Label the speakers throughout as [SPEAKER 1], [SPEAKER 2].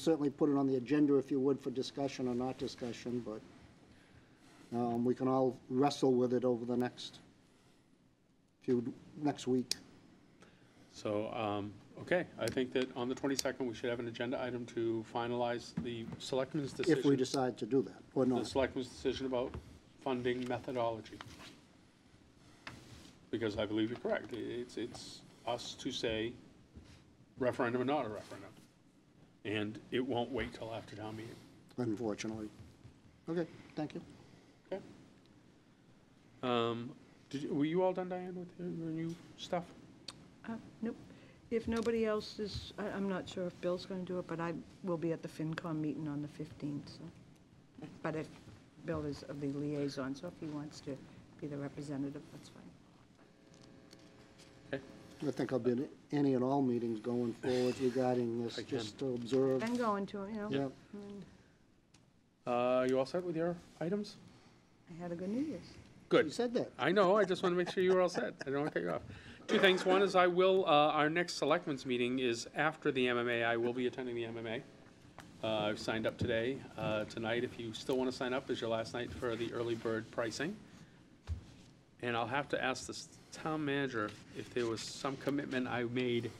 [SPEAKER 1] certainly put it on the agenda if you would for discussion or not discussion, but um, we can all wrestle with it over the next few, next week.
[SPEAKER 2] So, um, okay, I think that on the 22nd, we should have an agenda item to finalize the selectmen's decision.
[SPEAKER 1] If we decide to do that, or
[SPEAKER 2] The
[SPEAKER 1] not.
[SPEAKER 2] selectmen's decision about funding methodology. Because I believe you're correct. I- It's, it's us to say referendum or not a referendum. And it won't wait till after town meeting.
[SPEAKER 1] unfortunately. Okay, thank you.
[SPEAKER 2] Okay? Um, Did, you- were you all done, Diane, with your your new stuff?
[SPEAKER 3] Uh, Nope. If nobody else is, I- I'm not sure if Bill's going to do it, but I will be at the FinCom meeting on the 15th, so. But if Bill is the liaison, so if he wants to be the representative, that's fine.
[SPEAKER 2] Okay.
[SPEAKER 1] I think I'll be in any and all meetings going forward regarding this,
[SPEAKER 2] Again.
[SPEAKER 1] just to observe.
[SPEAKER 3] Been going to, you know,
[SPEAKER 1] Yeah,
[SPEAKER 2] Uh, You all set with your items?
[SPEAKER 3] I had a good New Year's.
[SPEAKER 2] Good.
[SPEAKER 1] you said that.
[SPEAKER 2] I know, I just want to make sure you were all set. I don't want to cut you off. Two things. One is I will, uh, our next selectmen's meeting is after the MMA. I will be attending the MMA. Uh, I've signed up today. Uh, tonight, if you still want to sign up, is your last night for the early bird pricing. And I'll have to ask the s- town manager if there was some commitment I made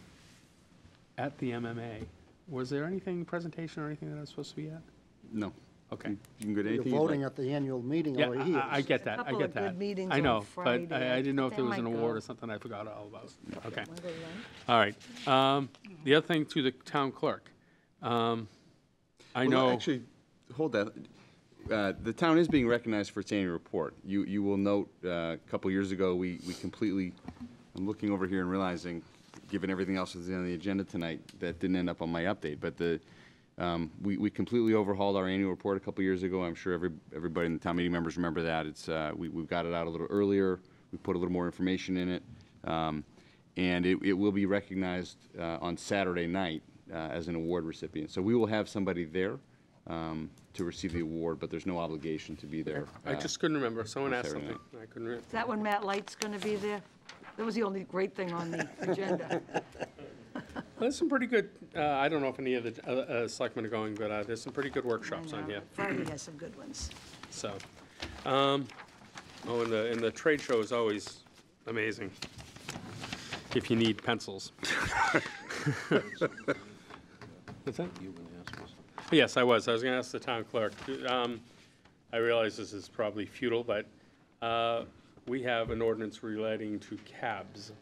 [SPEAKER 2] at the MMA. Was there anything, presentation or anything that I was supposed to be at?
[SPEAKER 4] No.
[SPEAKER 2] Okay.
[SPEAKER 4] You can go to
[SPEAKER 1] You're
[SPEAKER 4] anything you'd
[SPEAKER 1] voting
[SPEAKER 4] like.
[SPEAKER 1] at the annual meeting
[SPEAKER 2] Yeah,
[SPEAKER 1] over here.
[SPEAKER 2] I, I get that, I
[SPEAKER 3] Couple
[SPEAKER 2] get
[SPEAKER 3] of good
[SPEAKER 2] that.
[SPEAKER 3] meetings
[SPEAKER 2] I
[SPEAKER 3] on
[SPEAKER 2] know, but
[SPEAKER 3] Friday.
[SPEAKER 2] I, I didn't know if
[SPEAKER 3] They
[SPEAKER 2] there was an
[SPEAKER 3] might
[SPEAKER 2] award
[SPEAKER 3] go.
[SPEAKER 2] or something I forgot all about. Okay,
[SPEAKER 3] Wanna go to lunch?
[SPEAKER 2] all right. Um, the other thing to the town clerk. Um, I
[SPEAKER 4] Well,
[SPEAKER 2] know,
[SPEAKER 4] Actually, hold that. Uh, The town is being recognized for its annual report. You, you will note, uh, a couple years ago, we, we completely, I'm looking over here and realizing, given everything else that's on the agenda tonight, that didn't end up on my update, but the, um, we, we completely overhauled our annual report a couple years ago. I'm sure every, everybody in the town meeting members remember that. It's, uh, we, we got it out a little earlier. We put a little more information in it. Um, and it, it will be recognized uh, on Saturday night uh, as an award recipient. So we will have somebody there um, to receive the award, but there's no obligation to be there.
[SPEAKER 2] I
[SPEAKER 4] uh,
[SPEAKER 2] just couldn't remember. Someone asked
[SPEAKER 4] Saturday
[SPEAKER 2] something. I couldn't remember.
[SPEAKER 3] Is that when Matt Light's going to be there? That was the only great thing on the agenda.
[SPEAKER 2] There's some pretty good, uh, I don't know if any of the, uh, uh, selectmen are going, but, uh, there's some pretty good workshops
[SPEAKER 3] I
[SPEAKER 2] on
[SPEAKER 3] know,
[SPEAKER 2] here.
[SPEAKER 3] Friday has some good ones.
[SPEAKER 2] So, um, oh, and the, and the trade show is always amazing, if you need pencils. What's that? Yes, I was, I was gonna ask the town clerk, um, I realize this is probably futile, but, uh, we have an ordinance relating to cabs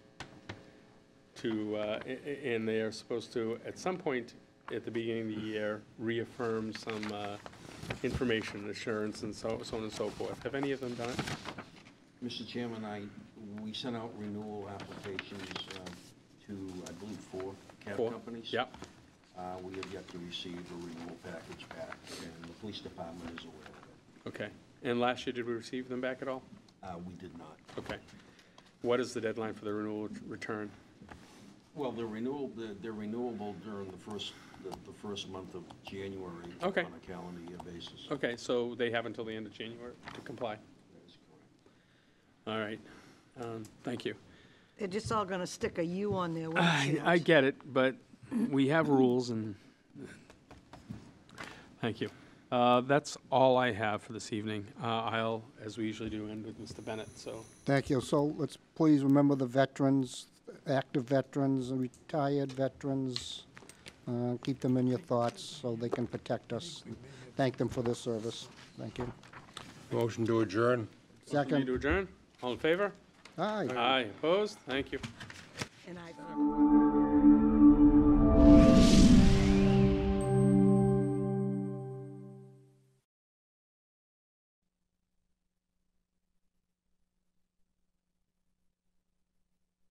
[SPEAKER 2] to, uh, a- a- and they are supposed to, at some point at the beginning of the year, reaffirm some uh, information assurance and so so on and so forth. Have any of them done it?
[SPEAKER 5] Mr. Chairman, I, we sent out renewal applications um, to, I believe, four cab
[SPEAKER 2] Four?
[SPEAKER 5] companies.
[SPEAKER 2] Yep.
[SPEAKER 5] Uh, We have yet to receive a renewal package back, and the police department is aware of
[SPEAKER 2] Okay. And last year, did we receive them back at all?
[SPEAKER 5] it. Uh, We did not.
[SPEAKER 2] Okay. What is the deadline for the renewal return?
[SPEAKER 5] Well, they're renewal, they're- they're renewable during the first, the the first month of January.
[SPEAKER 2] Okay.
[SPEAKER 5] On a calendar year basis.
[SPEAKER 2] Okay, so they have until the end of January to comply.
[SPEAKER 5] That is correct.
[SPEAKER 2] All right. Um, Thank you.
[SPEAKER 3] They're just all going to stick a U on their
[SPEAKER 2] I, I
[SPEAKER 3] windshield.
[SPEAKER 2] get it, but we have rules and, thank you. Uh, That's all I have for this evening. Uh, I'll, as we usually do, end with Mr. Bennett, so.
[SPEAKER 1] Thank you. So let's please remember the veterans, active veterans, and retired veterans. Uh, Keep them in your thoughts so they can protect us. Thank them for their service. Thank you.
[SPEAKER 6] Motion to adjourn.
[SPEAKER 2] Need to
[SPEAKER 1] Second,
[SPEAKER 2] adjourn? All in favor?
[SPEAKER 1] aye.
[SPEAKER 2] Aye, opposed? Thank you.
[SPEAKER 3] And I.